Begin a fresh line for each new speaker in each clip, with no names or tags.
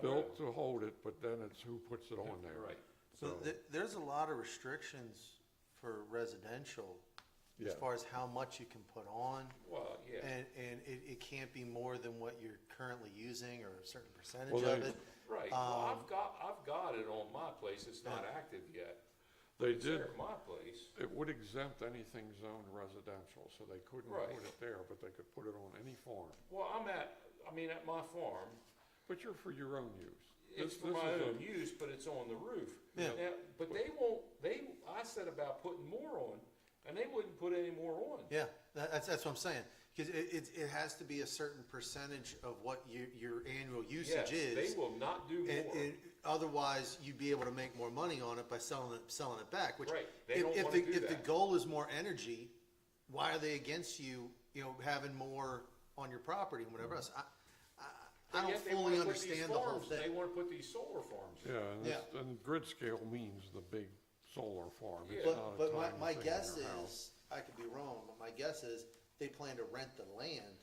built to hold it, but then it's who puts it on there.
Right.
So there, there's a lot of restrictions for residential as
Yeah.
far as how much you can put on.
Well, yeah,
And, and it, it can't be more than what you're currently using or a certain percentage
Well,
of
they-
it. Um,
right. Well, I've got, I've got it on my place. It's not active yet.
They
It's there
did,
at my place.
it would exempt anything zoned residential, so they couldn't
Right.
put it there, but they could put it on any farm.
Well, I'm at, I mean, at my farm,
But you're for your own use.
it's
This-
for
this
my
is a-
own use, but it's on the roof.
Yeah.
Now, But they won't, they, I said about putting more on, and they wouldn't put any more on.
Yeah, that, that's, that's what I'm saying. Cause it, it, it has to be a certain percentage of what your, your annual
Yes,
usage is.
they will not do
And,
more.
and otherwise, you'd be able to make more money on it by selling it, selling it back, which.
Right, they
if-
don't
if
wanna
the-
do
If
that.
the goal is more energy, why are they against you, you know, having more on your property and whatever else? I, I, I
Mm-hmm. But
don't
yet they wanna
fully
put these
understand the whole
farms- They
thing.
wanna put these solar farms. in.
Yeah, and this- and grid scale means the big solar farm. It's
Yeah.
not
But,
a
but my,
tiny
my
thing in your
guess
house.
is, I could be wrong, but my guess is they plan to rent the land.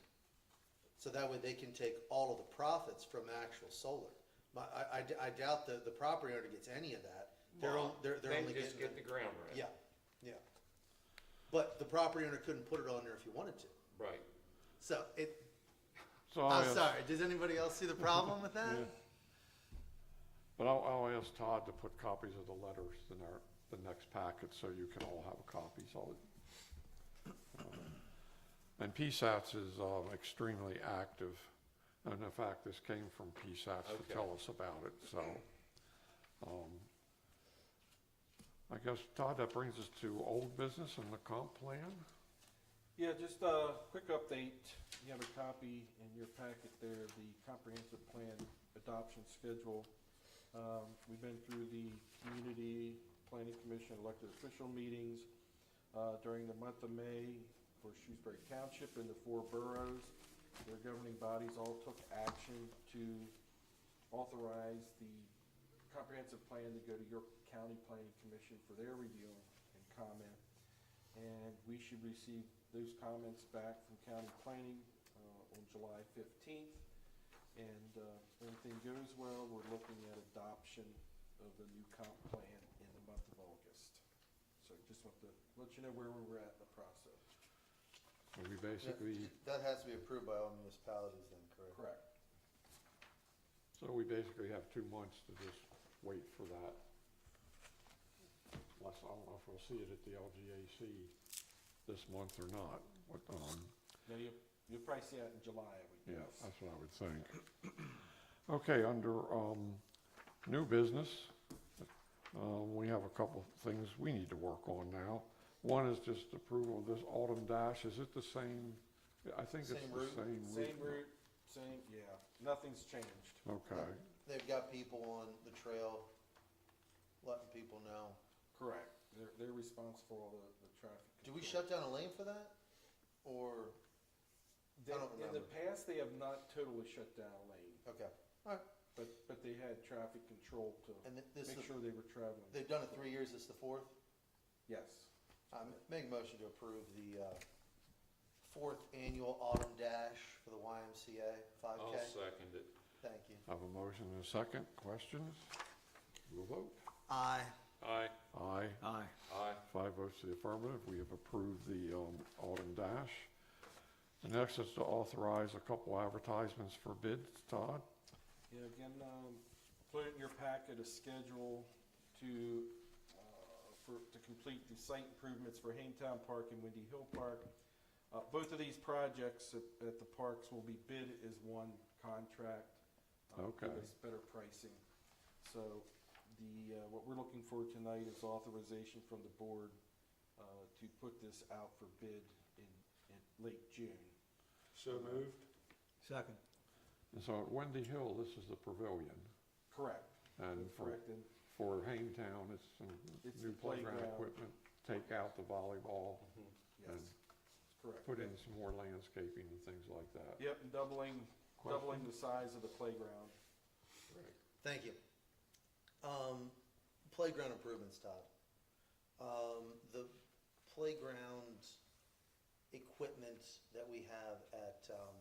So that way they can take all of the profits from actual solar. My, I, I d- I doubt the, the property owner gets any of that. They're, on- they're, they're
They
only getting.
just get the ground rent.
Yeah, yeah. But the property owner couldn't put it on there if he wanted to.
Right.
So it,
So I'll
I'm
ask-
Oh, sorry, does anybody else see the problem with that?
But I'll, I'll ask Todd to put copies of the letters in our, the next packet, so you can all have copies of it. Um, And PSATs is um, extremely active, and in fact, this came from PSATs
Okay.
to tell us about it, so. um, I guess, Todd, that brings us to old business and the comp plan?
Yeah, just a quick update. You have a copy in your packet there of the comprehensive plan adoption schedule. Um, We've been through the community planning commission elected official meetings uh, during the month of May for Shrewsbury Township and the four boroughs. Their governing bodies all took action to authorize the comprehensive plan to go to York County Planning Commission for their review and comment. And we should receive those comments back from county planning uh, on July fifteenth. And uh, if everything goes well, we're looking at adoption of the new comp plan in the month of August. So just want to let you know where we're at in the process.
And We basically,
That has to be approved by all municipalities then, correct?
Correct.
so we basically have two months to just wait for that. Unless, I don't know if we'll see it at the LGAC this month or not, but, um,
Now, you'll, you'll probably see that in July, I would
yeah,
guess.
that's what I would think. Okay, under, um, new business, uh, we have a couple of things we need to work on now. One is just approval of this autumn dash, is it the same, I think it's the
Same
same
route,
route.
Same route, same, yeah, nothing's changed.
Okay,
They've got people on the trail, letting people know.
Correct. They're, they're responsible for all the, the traffic.
Do we
control.
shut down a lane for that? Or,
They-
don't
In the
remember.
past, they have not totally shut down a lane,
okay, alright,
but, but they had traffic control to
and thi- this,
make
is-
sure they were traveling.
they've done it three years, it's the fourth?
Yes.
I make a motion to approve the, uh, fourth annual autumn dash for the YMCA five
I'll
K.
second it.
Thank you.
I have a motion and a second, questions? We'll vote.
Aye.
Aye.
Aye,
Aye.
Aye.
five votes to the affirmative, we have approved the um, Autumn Dash. The next is to authorize a couple advertisements for bids, Todd?
Yeah, again, um, put in your packet a schedule to, uh, for, to complete the site improvements for Hangtown Park and Windy Hill Park. Uh, both of these projects at, at the parks will be bid as one contract. uh, Give
Okay.
us better pricing. So the, uh, what we're looking for tonight is authorization from the board, uh, to put this out for bid in, in late June.
So moved.
Second.
And so at Wendy Hill, this is the pavilion,
Correct.
and for,
Correct, and
for Haintown, it's some
It's
new
the
playground
playground.
equipment, take out the volleyball,
yes, correct.
put in some more landscaping and things like that.
Yep, and doubling, doubling the size of the playground.
Thank you. Um, playground improvements, Todd. Um, the playground equipment that we have at, um, um,